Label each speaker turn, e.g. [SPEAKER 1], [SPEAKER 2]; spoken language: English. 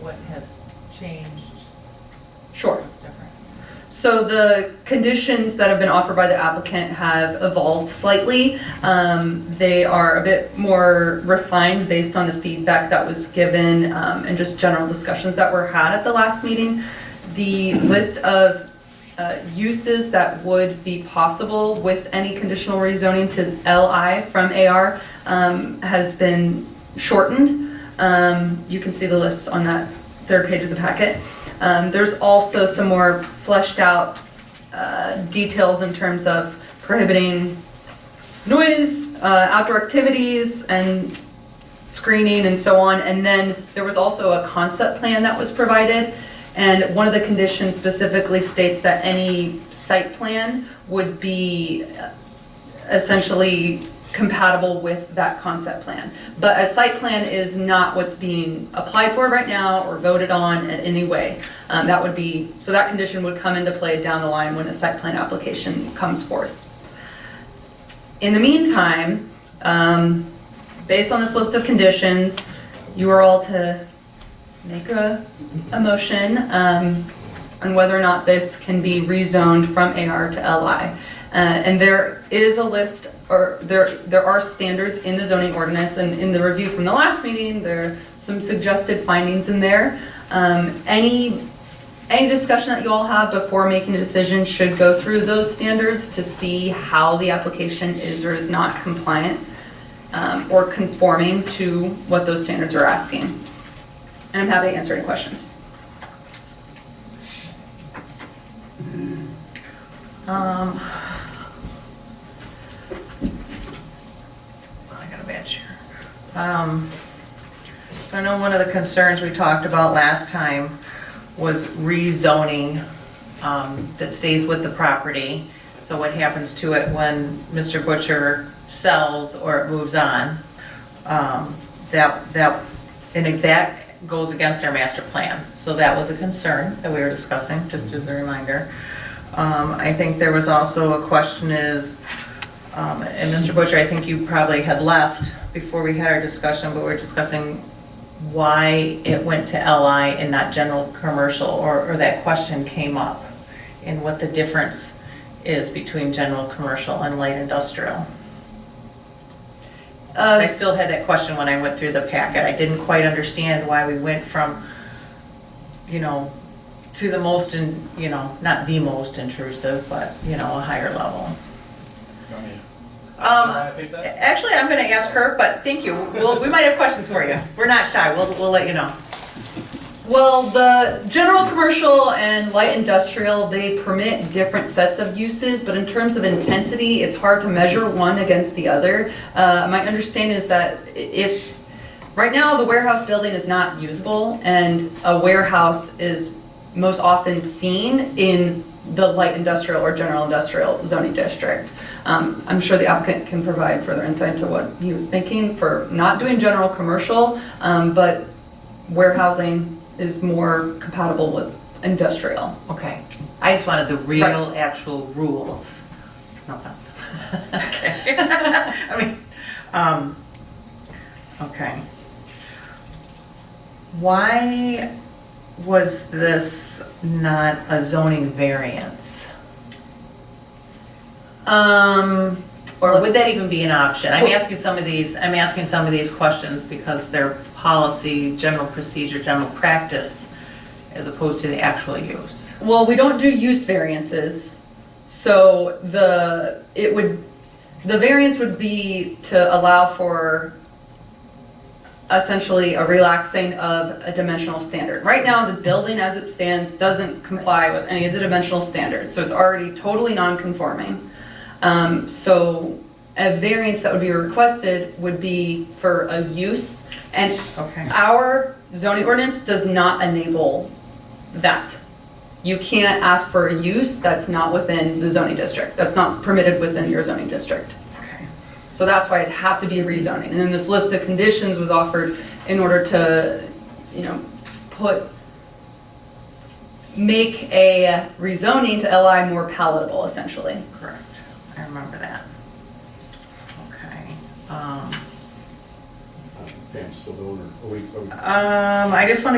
[SPEAKER 1] what has changed?
[SPEAKER 2] Sure.
[SPEAKER 1] What's different?
[SPEAKER 2] So the conditions that have been offered by the applicant have evolved slightly. Um, They are a bit more refined based on the feedback that was given um, and just general discussions that were had at the last meeting. The list of uh, uses that would be possible with any conditional rezoning to LI from AR um, has been shortened. Um, You can see the list on that third page of the packet. Um, There's also some more fleshed out uh, details in terms of prohibiting noise, uh, outdoor activities, and screening and so on. And then there was also a concept plan that was provided. And one of the conditions specifically states that any site plan would be uh, essentially compatible with that concept plan. But a site plan is not what's being applied for right now or voted on in any way. Um, That would be, so that condition would come into play down the line when a site plan application comes forth. In the meantime, um, based on this list of conditions, you are all to make a, a motion um, on whether or not this can be rezoned from AR to LI. Uh, And there is a list, or there, there are standards in the zoning ordinance, and in the review from the last meeting, there are some suggested findings in there. Um, Any any discussion that you all have before making a decision should go through those standards to see how the application is or is not compliant um, or conforming to what those standards are asking. And I'm happy to answer any questions. Um,
[SPEAKER 1] I got a badge here. Um, So I know one of the concerns we talked about last time was rezoning um, that stays with the property. So what happens to it when Mr. Butcher sells or it moves on? Um, That, that, and if that goes against our master plan. So that was a concern that we were discussing, just as a reminder. Um, I think there was also a question is, um, And Mr. Butcher, I think you probably had left before we had our discussion, but we we're discussing why it went to LI and not general commercial, or, or that question came up, and what the difference is between general commercial and light industrial. I
[SPEAKER 2] uh,
[SPEAKER 1] still had that question when I went through the packet. I didn't quite understand why we went from, you know, to the most, in you know, not the most intrusive, but, you know, a higher level.
[SPEAKER 3] You want me to-
[SPEAKER 1] Um,
[SPEAKER 3] Should I pick that?
[SPEAKER 1] Actually, I'm going to ask her, but thank you. We'll, we might have questions for you. We're not shy. We'll, we'll let you know.
[SPEAKER 2] Well, the general commercial and light industrial, they permit different sets of uses, but in terms of intensity, it's hard to measure one against the other. Uh, My understanding is that i- if, right now, the warehouse building is not usable, and a warehouse is most often seen in the light industrial or general industrial zoning district. Um, I'm sure the applicant can provide further insight into what he was thinking for not doing general commercial, um, but warehousing is more compatible with industrial.
[SPEAKER 1] Okay. I just wanted the real,
[SPEAKER 2] Right.
[SPEAKER 1] actual rules. No offense. I mean, um, okay. Why was this not a zoning variance?
[SPEAKER 2] Um,
[SPEAKER 1] Or would that even be an option? I'm asking some of these, I'm asking some of these questions because they're policy, general procedure, general practice, as opposed to the actual use.
[SPEAKER 2] well, we don't do use variances, so the, it would, the variance would be to allow for essentially a relaxing of a dimensional standard. Right now, the building as it stands doesn't comply with any of the dimensional standards, so it's already totally non-conforming. Um, So a variance that would be requested would be for a use, and
[SPEAKER 1] Okay.
[SPEAKER 2] our zoning ordinance does not enable that. You can't ask for a use that's not within the zoning district, that's not permitted within your zoning district. So that's why it'd have to be rezoning. And then this list of conditions was offered in order to, you know, put, make a rezoning to LI more palatable essentially.
[SPEAKER 1] Correct. I remember that. Okay. Um,
[SPEAKER 4] Pam's still the owner. Are we- are we-
[SPEAKER 1] um, I just want to